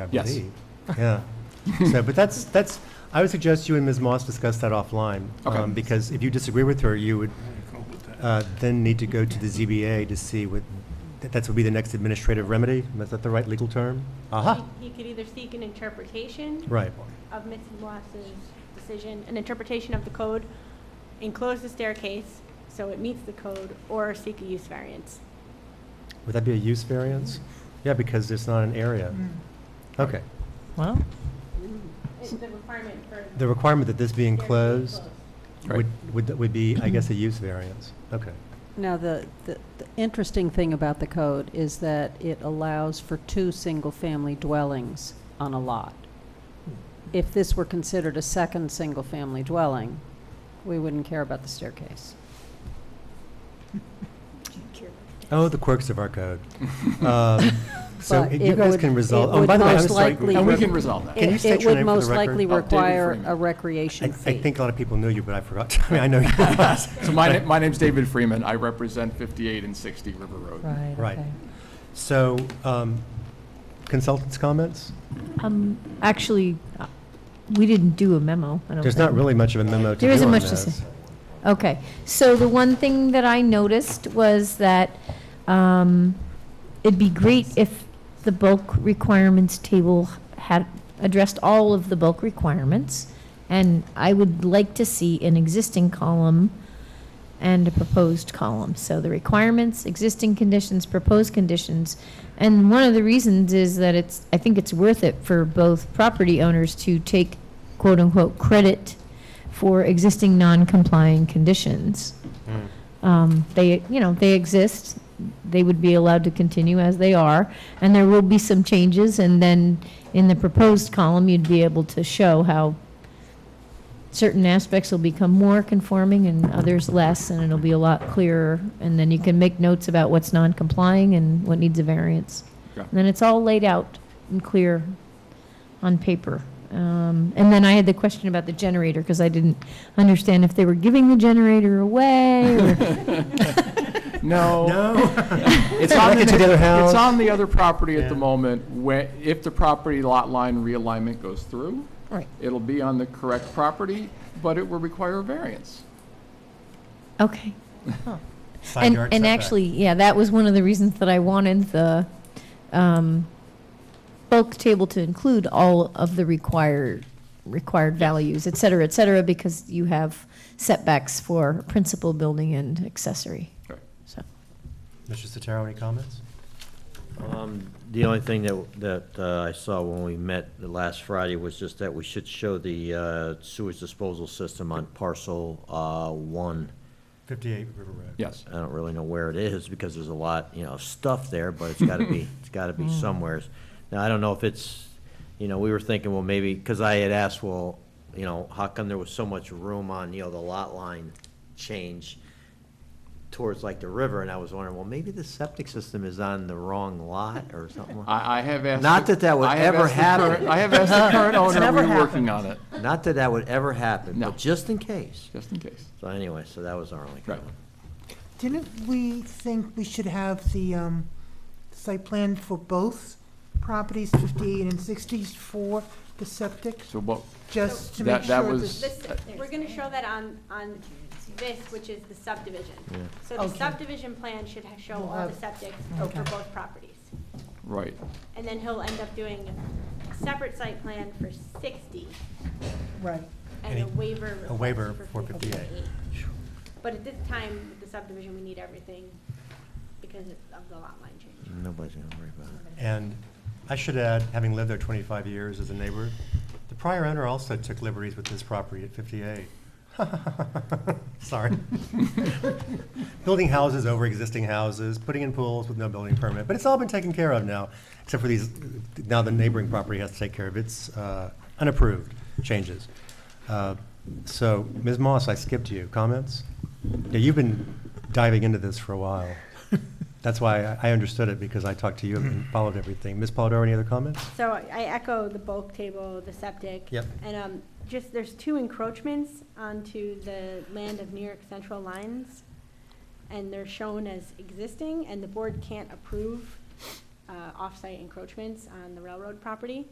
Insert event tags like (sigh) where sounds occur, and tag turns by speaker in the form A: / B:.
A: I
B: Yes.
A: believe. Yeah. So, but that's, that's, I would suggest you and Ms. Moss discuss that offline.
B: Okay.
A: um, Because if you disagree with her, you would uh, then need to go to the ZBA to see what, that that would be the next administrative remedy? Is that the right legal term? Aha,
C: He he could either seek an interpretation
A: right.
C: of Mrs. Moss's decision, an interpretation of the code, enclose the staircase so it meets the code, or seek a use variance.
A: Would that be a use variance? Yeah, because it's not an area.
D: Mm.
A: Okay.
E: Well,
C: It's the requirement for.
A: The requirement that this be
C: staircase
A: enclosed
B: Right.
A: would, would would be, I guess, a use variance. Okay.
D: Now, the, the the interesting thing about the code is that it allows for two single-family dwellings on a lot. If this were considered a second single-family dwelling, we wouldn't care about the staircase.
A: Oh, the quirks of our
B: (laughs)
A: code. Um, So
D: But
A: you
D: it
A: guys
D: would-
A: can resolve, oh,
D: it
A: and
D: would
A: by the way, I'm
D: most
A: sorry.
D: likely-
A: and
B: And we
D: would-
B: can
D: (laughs)
B: resolve that.
A: Can you
D: It-
A: state your name for the
D: It would most
A: record?
D: likely
B: Updated
D: require
B: Freeman.
D: a
A: I, I
D: recreation fee.
A: think a lot of people knew you, but I forgot. (laughs) I mean, I know you.
B: (laughs) So my, na- my name's David Freeman. I represent 58 and 60 River Road.
E: right.
A: Right.
E: okay.
A: So um, consultants' comments?
E: Um, actually, uh, we didn't do a memo, I don't
A: There's not
E: think.
A: really much of a memo to do
E: There isn't
A: on
E: much to
A: this.
E: say.
F: Okay, so the one thing that I noticed was that um, it'd be great if the bulk requirements table had addressed all of the bulk requirements. And I would like to see an existing column and a proposed column. So the requirements, existing conditions, proposed conditions. And one of the reasons is that it's, I think it's worth it for both property owners to take quote-unquote credit for existing non-complying conditions.
A: Mm.
F: Um, They, you know, they exist, they would be allowed to continue as they are, and there will be some changes, and then in the proposed column, you'd be able to show how certain aspects will become more conforming and others less, and it'll be a lot clearer, and then you can make notes about what's non-complying and what needs a variance.
B: Okay.
F: And then it's all laid out and clear on paper. Um, And then I had the question about the generator, because I didn't understand if they were giving the generator away, or
B: No. (laughs)
A: No.
B: It's on
A: Connected to the other house.
B: It's on the other property at the
A: Yeah.
B: moment. Where, if the property lot line realignment goes through,
F: Right.
B: it'll be on the correct property, but it will require a variance.
F: Okay.
A: Side
F: And,
A: yard
F: and
A: setback.
F: actually, yeah, that was one of the reasons that I wanted the um, bulk table to include all of the required, required values, et cetera, et cetera, because you have setbacks for principal building and accessory.
B: Right.
F: So,
A: Mr. Sotero, any comments?
G: Um, The only thing that, that uh, I saw when we met the last Friday was just that we should show the uh, sewage disposal system on parcel uh, one.
A: 58 River Road.
B: Yes.
G: I don't really know where it is, because there's a lot, you know, of stuff there, but it's gotta be, it's gotta be somewheres. Now, I don't know if it's, you know, we were thinking, well, maybe, because I had asked, well, you know, how come there was so much room on, you know, the lot line change towards like the river, and I was wondering, well, maybe the septic system is on the wrong lot or something. like-
B: I, I have asked.
G: Not
B: the-
G: that that would
B: I have
G: ever
B: asked the current-
G: happen.
B: I have asked the current owner,
E: never
B: we're working on it,
G: Not that that would ever happen,
B: No.
G: but just in case.
B: just in case.
G: So anyway, so that was our only
B: Right.
G: comment.
H: Didn't we think we should have the um, site plan for both properties, 58 and 60, for the septic,
B: So what,
H: just to
B: That-
H: make
B: that
H: sure
B: was-
H: that
C: This, we're gonna show that on, on this, which is the subdivision. So the
H: Okay.
C: subdivision plan should ha- show
H: We'll
C: all the
H: have-
C: septic
H: Okay.
C: for both properties.
B: right,
C: And then he'll end up doing a separate site plan for sixty
H: Right.
C: and a
A: Any-
C: waiver. request
A: waiver for 58.
C: But at this time, with the subdivision, we need everything because of the lot line change.
G: Nobody's gonna worry about it.
A: And I should add, having lived there 25 years as a neighbor, the prior owner also took liberties with his property at 58. (laughs) Sorry. Building houses over existing houses, putting in pools with no building permit, but it's all been taken care of now, except for these, now the neighboring property has to take care of its uh, unapproved changes. Uh, So, Ms. Moss, I skipped you. Comments? Yeah, you've been diving into this for a while. That's why I- I understood it, because I talked to you and followed everything. Ms. Polidori, any other comments?
C: So I echo the bulk table, the septic.
A: Yep.
C: And um, just, there's two encroachments onto the land of New York Central Lines, and they're shown as existing, and the board can't approve um, uh, off-site encroachments on the railroad property.